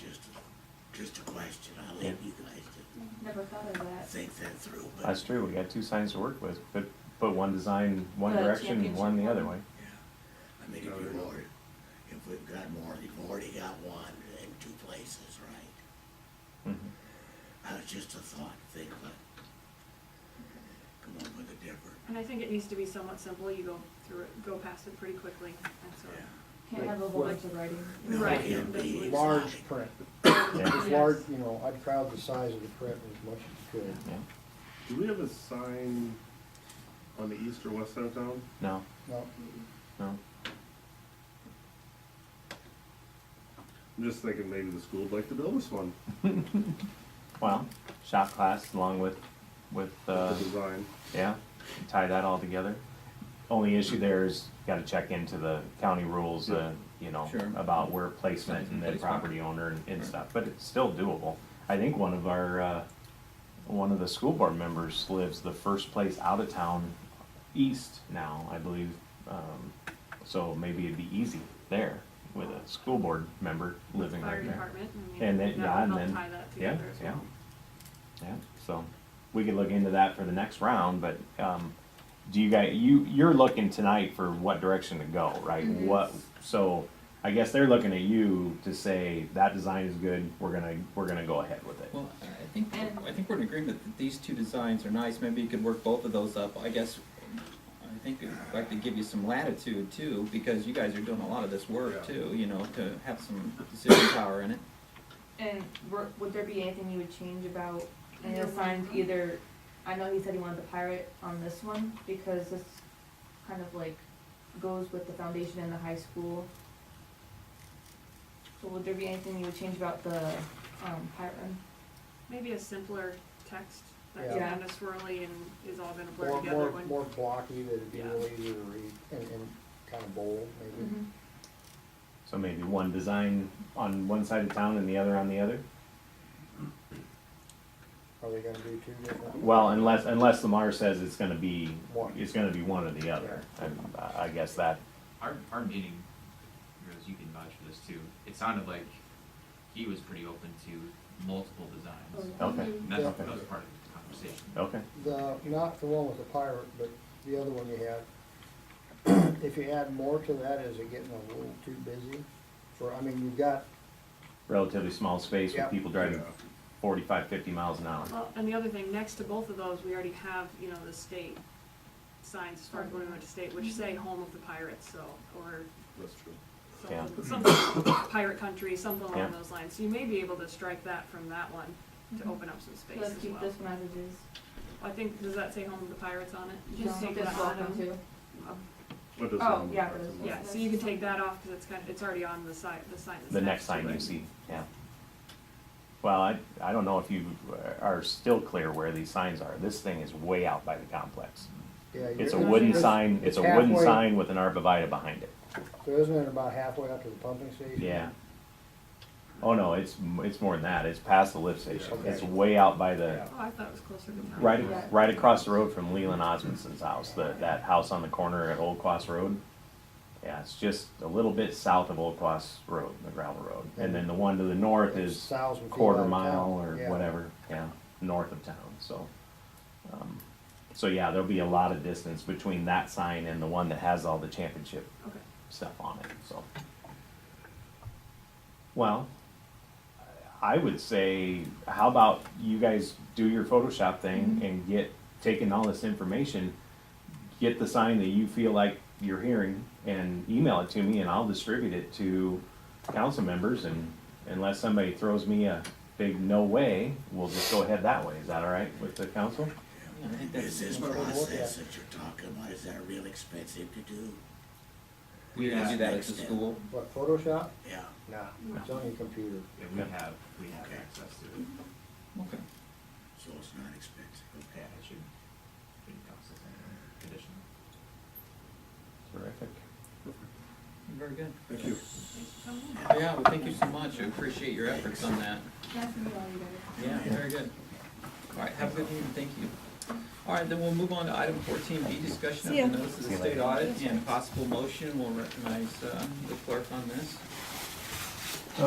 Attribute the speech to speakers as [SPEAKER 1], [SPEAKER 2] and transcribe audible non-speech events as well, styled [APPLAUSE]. [SPEAKER 1] just, just a question, I'll leave you guys to
[SPEAKER 2] Never thought of that.
[SPEAKER 1] think that through, but.
[SPEAKER 3] That's true, we got two signs to work with, but, but one design one
[SPEAKER 2] But
[SPEAKER 3] direction and one the
[SPEAKER 2] championship
[SPEAKER 3] other way.
[SPEAKER 2] one.
[SPEAKER 1] Yeah, I mean, if you've already, if we've got more, you've already got one in two places, right?
[SPEAKER 3] Mhm.
[SPEAKER 1] Uh, it's just a thought, think about, come up with a different,
[SPEAKER 4] And I think it needs to be somewhat simple, you go through it, go past it pretty quickly, and so.
[SPEAKER 1] yeah.
[SPEAKER 2] Can't have a whole bunch of writing.
[SPEAKER 1] No, it
[SPEAKER 4] Right.
[SPEAKER 1] can't be
[SPEAKER 4] It's Oh,
[SPEAKER 1] exotic.
[SPEAKER 5] large print.
[SPEAKER 3] Yeah,
[SPEAKER 5] If large, you know, I'd crowd the size of the print as much as you could.
[SPEAKER 3] yeah,
[SPEAKER 6] Do we have a sign on the east or west side of town?
[SPEAKER 3] no,
[SPEAKER 5] No,
[SPEAKER 3] no,
[SPEAKER 6] I'm just thinking maybe the school would like to build this one,
[SPEAKER 3] well, shop class along with, with,
[SPEAKER 6] the
[SPEAKER 3] uh,
[SPEAKER 6] design.
[SPEAKER 3] yeah, tie that all together. Only issue there is, gotta check into the county rules, uh, you know,
[SPEAKER 7] Sure.
[SPEAKER 3] about where placement and then
[SPEAKER 7] Placement.
[SPEAKER 3] property owner and, and
[SPEAKER 7] Right.
[SPEAKER 3] stuff, but it's still doable. I think one of our, uh, one of the school board members lives the first place out of town east now, I believe. Um, so maybe it'd be easy there with a school board member living
[SPEAKER 4] Fire
[SPEAKER 3] right there.
[SPEAKER 4] department, I mean,
[SPEAKER 3] And then, yeah,
[SPEAKER 4] that
[SPEAKER 3] and
[SPEAKER 4] would help
[SPEAKER 3] then,
[SPEAKER 4] tie that
[SPEAKER 3] yeah,
[SPEAKER 4] together as
[SPEAKER 3] yeah.
[SPEAKER 4] well.
[SPEAKER 3] Yeah, so we could look into that for the next round, but, um, do you guys, you, you're looking tonight for what direction to go, right? What, so I guess they're looking at you to say that design is good, we're gonna, we're gonna go ahead with it.
[SPEAKER 7] Well, I think, I think we're in agreement that these two designs are nice, maybe you could work both of those up, I guess, I think I'd like to give you some latitude too, because you guys are doing a lot of this work
[SPEAKER 6] Yeah.
[SPEAKER 7] too, you know, to have some decision power in it.
[SPEAKER 8] And were, would there be anything you would change about any of the signs either, I know he said he wanted the pirate on this one, because this kind of like goes with the foundation and the high school. So would there be anything you would change about the, um, pirate?
[SPEAKER 4] Maybe a simpler text that's
[SPEAKER 5] Yeah.
[SPEAKER 4] kind of swirly and is all gonna blur
[SPEAKER 5] more,
[SPEAKER 4] together
[SPEAKER 5] more,
[SPEAKER 4] when.
[SPEAKER 5] more blocky that it'd be
[SPEAKER 4] Yeah. Mm-hmm.
[SPEAKER 5] real easy to read and, and kind of bold
[SPEAKER 2] Mm-hmm.
[SPEAKER 5] maybe.
[SPEAKER 3] So maybe one design on one side of town and the other on the other?
[SPEAKER 5] Are they gonna do two different?
[SPEAKER 3] Well, unless, unless Lamar says it's gonna be,
[SPEAKER 5] One.
[SPEAKER 3] it's gonna be one or the other, and uh, I I guess that,
[SPEAKER 9] Our, our meeting, Rose, you can vouch for this too, it sounded like he was pretty open to multiple designs.
[SPEAKER 3] okay,
[SPEAKER 9] And that's,
[SPEAKER 5] Yeah.
[SPEAKER 9] that was part of the conversation.
[SPEAKER 3] okay,
[SPEAKER 5] The, not the one with the pirate, but the other one you had. [CLEARS THROAT] If you add more to that, is it getting a little too busy? For, I mean, you've got,
[SPEAKER 3] relatively small space with
[SPEAKER 5] Yeah.
[SPEAKER 3] people driving
[SPEAKER 6] Yeah.
[SPEAKER 3] forty-five, fifty miles an hour.
[SPEAKER 4] Well, and the other thing, next to both of those, we already have, you know, the state signs, as far as when we went to state, which say home of the pirates, so, or
[SPEAKER 6] That's true.
[SPEAKER 3] Yeah.
[SPEAKER 4] something, something, pirate country, something
[SPEAKER 3] Yeah.
[SPEAKER 4] along those lines. So you may be able to strike that from that one to open up some space as well.
[SPEAKER 8] Mm-hmm. Let's keep this one as it is.
[SPEAKER 4] I think, does that say home of the pirates on it?
[SPEAKER 8] Just
[SPEAKER 4] Take
[SPEAKER 8] keep this
[SPEAKER 4] that
[SPEAKER 8] welcome
[SPEAKER 4] out.
[SPEAKER 8] too.
[SPEAKER 4] Um,
[SPEAKER 6] What does
[SPEAKER 8] Oh,
[SPEAKER 6] that mean?
[SPEAKER 8] yeah, it is.
[SPEAKER 4] Yeah, so you can take that off, cause it's kind of, it's already on the side, the sign that's next to
[SPEAKER 3] The
[SPEAKER 4] it.
[SPEAKER 3] next sign you see, yeah. Well, I, I don't know if you are still clear where these signs are. This thing is way out by the complex.
[SPEAKER 5] yeah.
[SPEAKER 3] It's a
[SPEAKER 5] you're-
[SPEAKER 3] wooden
[SPEAKER 5] it's-
[SPEAKER 3] sign, it's a wooden
[SPEAKER 5] halfway-
[SPEAKER 3] sign with an arborvitae behind it,
[SPEAKER 5] So isn't it about halfway up to the pumping station?
[SPEAKER 3] yeah. Oh, no, it's, m- it's more than that. It's past the lift station.
[SPEAKER 5] Okay.
[SPEAKER 3] It's way out by the,
[SPEAKER 4] Oh, I thought it was closer to town.
[SPEAKER 3] right,
[SPEAKER 8] Yeah.
[SPEAKER 3] right across the road from Leland Osmondson's house, the, that house on the corner at Old Cross Road. Yeah, it's just a little bit south of Old Cross Road, the gravel road. And then the one to the north
[SPEAKER 5] It's
[SPEAKER 3] is
[SPEAKER 5] thousand feet out
[SPEAKER 3] quarter
[SPEAKER 5] of town,
[SPEAKER 3] mile or
[SPEAKER 5] yeah.
[SPEAKER 3] whatever, yeah, north of town, so. um, So yeah, there'll be a lot of distance between that sign and the one that has all the championship
[SPEAKER 4] Okay.
[SPEAKER 3] stuff on it, so. Well, I would say, how about you guys do your Photoshop thing and get, taking all this information, get the sign that you feel like you're hearing and email it to me and I'll distribute it to council members and unless somebody throws me a big no way, we'll just go ahead that way. Is that all right with the council?
[SPEAKER 7] Yeah, I think
[SPEAKER 1] Is
[SPEAKER 7] that's,
[SPEAKER 1] this
[SPEAKER 5] what we're looking
[SPEAKER 1] process
[SPEAKER 5] at.
[SPEAKER 1] that you're talking about, is that real expensive to do?
[SPEAKER 7] we can do that at
[SPEAKER 1] Next
[SPEAKER 7] the
[SPEAKER 1] step.
[SPEAKER 7] school.
[SPEAKER 5] What, Photoshop?
[SPEAKER 1] Yeah,
[SPEAKER 5] Nah, it's on your computer.
[SPEAKER 9] Yeah, we have, we have
[SPEAKER 1] Okay.
[SPEAKER 9] access to it.
[SPEAKER 7] Okay.
[SPEAKER 1] so it's not expensive.
[SPEAKER 9] Yeah, it should, shouldn't cost us anything additional.
[SPEAKER 3] Terrific.
[SPEAKER 7] Very good.
[SPEAKER 6] Thank you.
[SPEAKER 7] Yeah, well, thank you so much, I appreciate your efforts on that.
[SPEAKER 8] Nice to meet all you guys.
[SPEAKER 7] Yeah, very good. All right, have a good evening, thank you. All right, then we'll move on to item fourteen B, discussion of the notice of
[SPEAKER 3] See
[SPEAKER 7] the
[SPEAKER 3] ya.
[SPEAKER 7] state audit and possible motion. We'll recognize uh, the clerk on this.